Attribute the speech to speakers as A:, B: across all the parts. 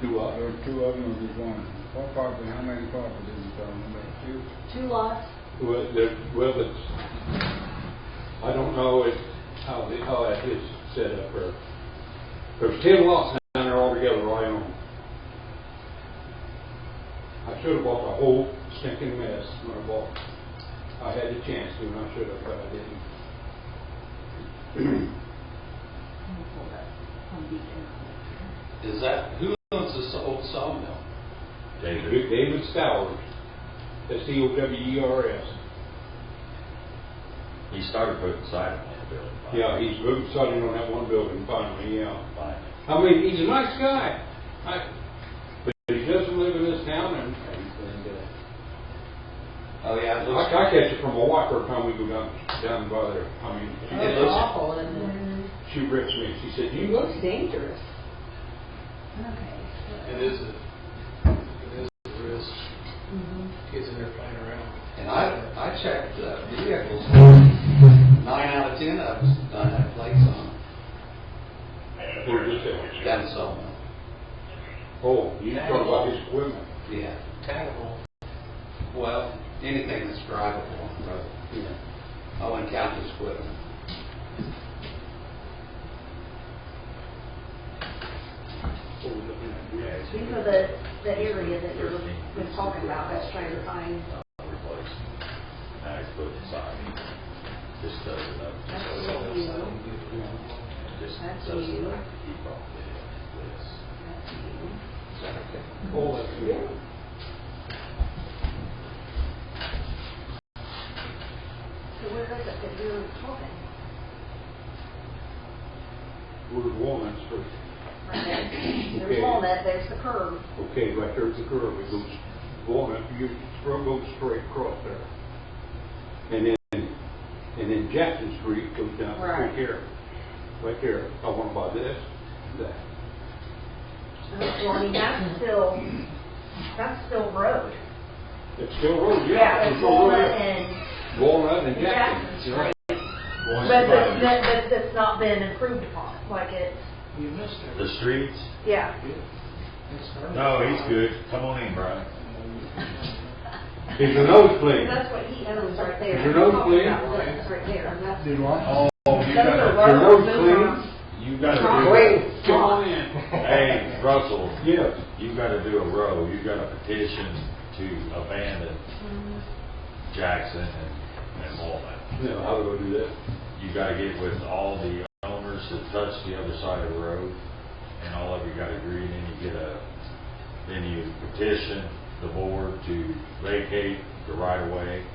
A: Do what?
B: There were two of them, or just one? What property, how many properties is on there? Two?
C: Two lots,
A: Well, there, well, it's, I don't know if, how, the- how that is set up or, there's ten lots down there altogether I own. I should have bought the whole stinking mess when I bought. it. I had the chance to and I should have, but I didn't.
C: I'm gonna pull that Home Depot.
D: Is that, who owns this old sawmill?
A: David. David Stowers, S T O W E R S.
E: He started putting siding on the building. by-
A: Yeah, he's moved suddenly on that one building finally, yeah.
E: by-
A: I mean, he's a nice guy. I, but he doesn't live in this town and, and, uh,
D: Oh, yeah. it
A: I,
D: looks-
A: I catch it from a walker time we go down, down by there. I mean, she,
D: It
F: It's
D: looks-
F: awful, isn't it?
A: she rips me. She said,
F: It
A: you look,
F: looks dangerous.
C: Okay.
G: It is a, it is a risk, kids in there playing around.
D: And I, I checked uh, vehicles, nine out of ten of them don't have plates on them.
A: where's this at?
D: Got a sawmill,
A: Oh, you talking about his equipment.
D: yeah.
G: Taggable.
D: Well, anything that's drivable on the road.
A: Yeah.
D: I wouldn't count this equipment.
A: What we're looking at.
E: Yeah, it's-
C: These are the, the area that you were
E: Thirteen.
C: been talking about, I was trying to find,
E: Replaced. Now he's putting siding. Just does it up.
C: that's
E: Just does
C: you,
E: it up. Just
C: That's
E: does it
C: you.
E: up. He probably did this.
C: that's you.
A: Oh, that's good.
C: So where is it that you're talking?
A: Where's Walnut Street?
C: Right there.
A: Okay.
C: There's Walnut, there's the curb.
A: Okay, right there's the curve. It goes Walnut, you go straight across there. And then, and then Jackson Street goes down right
C: Right.
A: here. Right there. I want to buy this, that.
C: Well, I mean, that's still, that's still road.
A: It's still road, yeah. It's
C: Yeah, it's
A: still
C: Walnut
A: road.
C: and
A: Walnut and
C: and
A: Jackson.
C: Jackson
A: you're right.
C: Street. But that's, that- but that's not been improved upon, like it's,
G: You missed it.
E: The streets?
C: yeah.
G: It's hard.
E: No, he's good. Come on in, Brian.
A: It's a nosebleed.
C: That's what he owns right there.
A: Is your nose
C: Talking
A: clean?
C: about this Right there, and that's.
B: Did what?
E: Oh,
C: Those
E: you gotta,
C: are
A: Your
C: roads,
A: nose
C: those
A: clean?
C: are-
E: you gotta
C: Wrong
E: do.
C: way.
A: Come on in.
E: Hey, Russell,
A: Yes.
E: you gotta do a row. You gotta petition to abandon Jackson and, and Walnut.
A: No, I would go do that.
E: You gotta get with all the owners that touch the other side of the road, and all of you gotta agree, and then you get a, then you petition the board to vacate the right of way,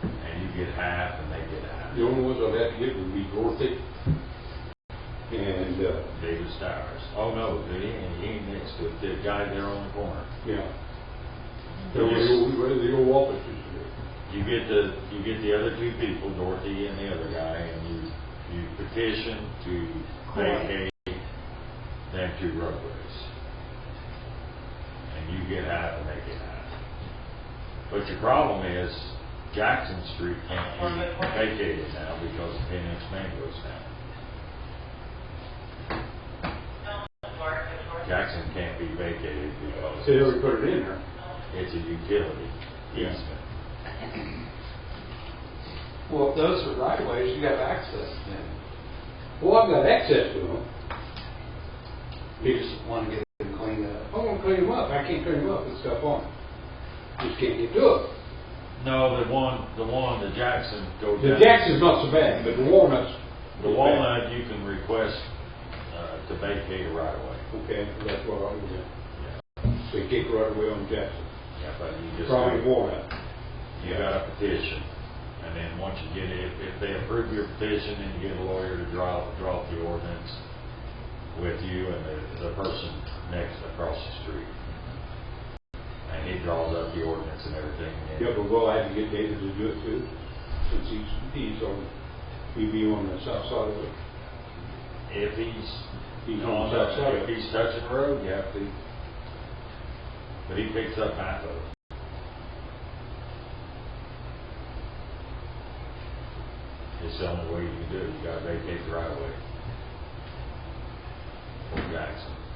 E: and you get half, and they get half.
A: The only ones I'd have to get would be Dorothy and, uh,
E: David Stowers. Oh, no, he, ain't- he ain't mixed with the guy there on the corner.
A: yeah. There was the old, where the old office used to be.
E: You get the, you get the other two people, Dorothy and the other guy, and you, you petition to vacate them two roadways. And you get half and they get half. But your problem is Jackson Street can't be vacated now because of Phoenix Mangoes now. Jackson can't be vacated because
A: See, they put it in there.
E: it's a utility
A: Yeah.
E: easement.
D: Well, if those are right of ways, you have access to them.
A: Well, I've got access to them.
D: You just want to get them cleaned up.
A: I want to clean them up. I can't clean them up and stuff on them. Just can't get to it.
E: No, the one, the one, the Jackson goes down.
A: The Jackson's not so bad, but the Walnuts.
E: The Walnut, you can request, uh, to vacate a right of way.
A: Okay, that's what I'll do. So you kick right away on Jackson.
E: Yeah, but you just.
A: Probably Walnut.
E: You got a petition, and then once you get it, if they approve your petition, then you get a lawyer to draw, draw up the ordinance with you and the, the person next across the street. And he draws up the ordinance and everything. and-
A: Yeah, but we'll have to get David to do it too, since he's, he's on, he'd be on the south side of it.
E: If he's,
A: He's
E: he's
A: on
E: on
A: the
E: that,
A: side.
E: if he's touching the road, you have to. But he picks up half of it. It's the only way you can do it, you gotta vacate the right of way. For Jackson.